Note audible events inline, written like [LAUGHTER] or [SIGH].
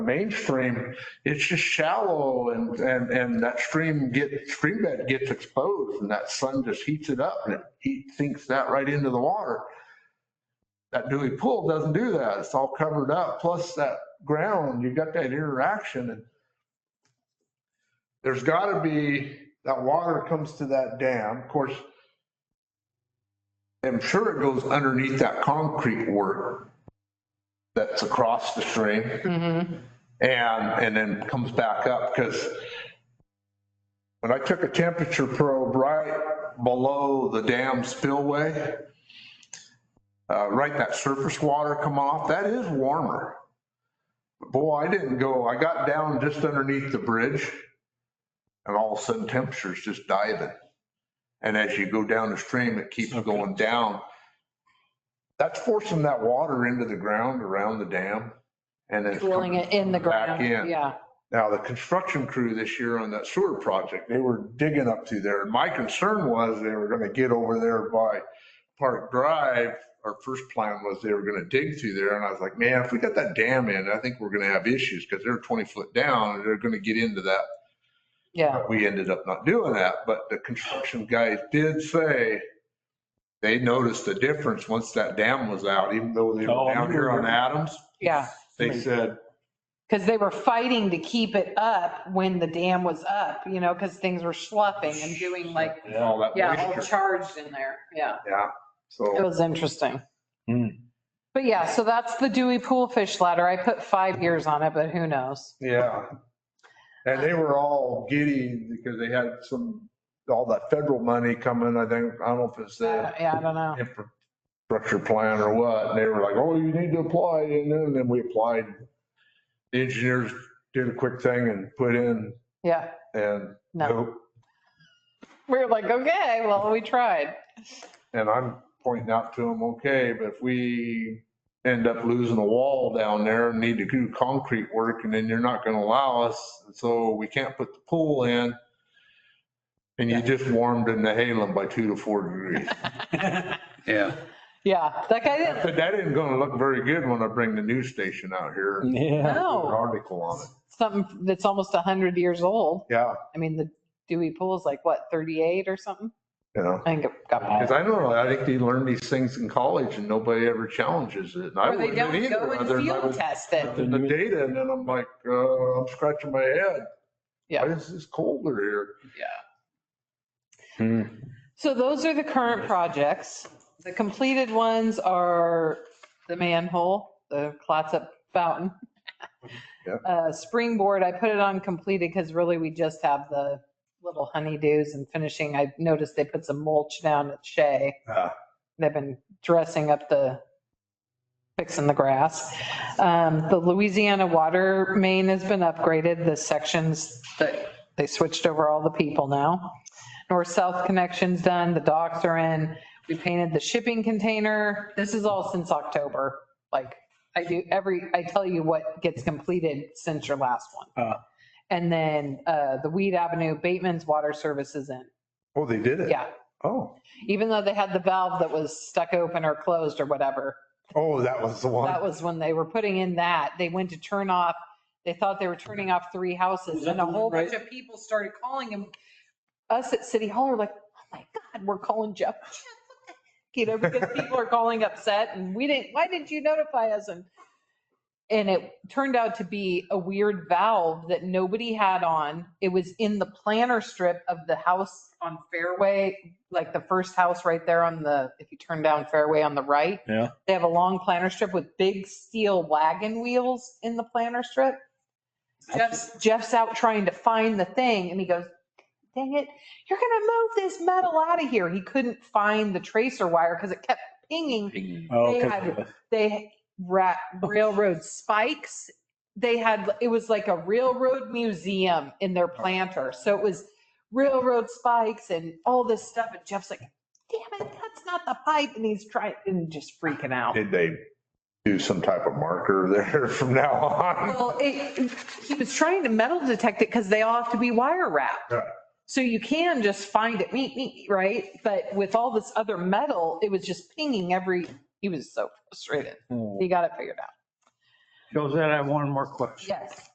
mainstream, it's just shallow and, and, and that stream get, stream bed gets exposed and that sun just heats it up and it heat sinks that right into the water. That Dewey Pool doesn't do that. It's all covered up. Plus that ground, you've got that interaction and there's gotta be, that water comes to that dam. Of course, I'm sure it goes underneath that concrete work that's across the stream. And, and then comes back up because when I took a temperature probe right below the dam spillway, uh, right, that surface water coming off, that is warmer. Boy, I didn't go, I got down just underneath the bridge and all of a sudden temperature's just diving. And as you go down the stream, it keeps going down. That's forcing that water into the ground around the dam and then. it's Drilling it in the Back ground. in. Yeah. Now, the construction crew this year on that sewer project, they were digging up through there. And my concern was they were going to get over there by Park Drive. Our first plan was they were going to dig through there. And I was like, man, if we got that dam in, I think we're going to have issues because they're 20 foot down and they're going to get into that Yeah. we ended up not doing that, but the construction guys did say they noticed the difference once that dam was out, even though they Oh, were I down here on remember. Adams. Yeah. They said, Because they were fighting to keep it up when the dam was up, you know, because things were sloughing and doing like, all that yeah, all moisture. charged in there. Yeah. Yeah, It so was interesting. Hmm. But yeah, so that's the Dewey Pool Fish Ladder. I put five years on it, but who knows? Yeah. And they were all giddy because they had some, all that federal money coming, I think, I don't know if it's the Uh, Yeah, I don't know. infrastructure plan or what. And they were like, oh, you need to apply. And then, then we applied. The engineers did a quick thing and put in Yeah. and No. nope. We were like, okay, well, we tried. And I'm pointing out to them, okay, but if we end up losing a wall down there and need to do concrete work and then you're not going to allow us, so we can't put the pool in. And you just warmed in the Halem by two to four degrees. [LAUGHS] Yeah, Yeah. That [LAUGHS] guy didn't. But that isn't going to look very good when I bring the news station out here and Yeah. [LAUGHS] do an No. article on it. Something that's almost 100 years old. Yeah, I mean, the Dewey Pool's like, what, 38 or something? you know, I think it got Wow. because I don't know, I think they learn these things in college and nobody ever challenges it. And I Or they wouldn't don't either. go other and than I field was test it. in the data and then I'm like, uh, I'm scratching my head. Yeah. Why is this colder here? Oh, So those are the current projects. The completed ones are the manhole, the Clatsop fountain. [LAUGHS] Yep. Uh, Springboard, I put it on completed because really we just have the little honeydews and finishing. I noticed they put some mulch down at Shea. Ah. They've been dressing up the, fixing the grass. Um, The Louisiana water main has been upgraded, the sections that, they switched over all the people now. North-south connection's done, the docks are in, we painted the shipping container. This is all since October. Like, I do every, I tell you what gets completed since your last one. Uh. And then uh, the Weed Avenue, Bateman's Water Service is in. Oh, they did it? Yeah, Oh, even though they had the valve that was stuck open or closed or whatever. oh, that was the That one. was when they were putting in that. They went to turn off, they thought they were turning off three Was houses that and a the one whole right- bunch of people started calling him. Us at City Hall were like, oh my God, we're calling [LAUGHS] Jeff. You know, because people are calling upset and we didn't, why didn't you notify us? And, and it turned out to be a weird valve that nobody had on. It was in the planter strip of the house on Fairway, like the first house right there on the, if you turn down Fairway on the right. Yeah. They have a long planter strip with big steel wagon wheels in the planter strip. Jeff's, Jeff's out trying to find the thing and he goes, dang it, you're going to move this metal out of here. He couldn't find the tracer wire because it kept pinging. Oh, They 'cause had- of [LAUGHS] the- They ra- railroad spikes. They had, it was like a railroad museum in their planter. So it was railroad spikes and all this stuff. And Jeff's like, damn it, that's not the pipe. And he's trying, and just freaking out. Did they do some type of marker there [LAUGHS] from now on? Well, it, he was trying to metal detect it because they all have to be wire wrapped. Right. So you can just find it, meet, meet, right? But with all this other metal, it was just pinging every, he was so frustrated. Hmm. He got it figured out. Josette, I have one more question. Yes.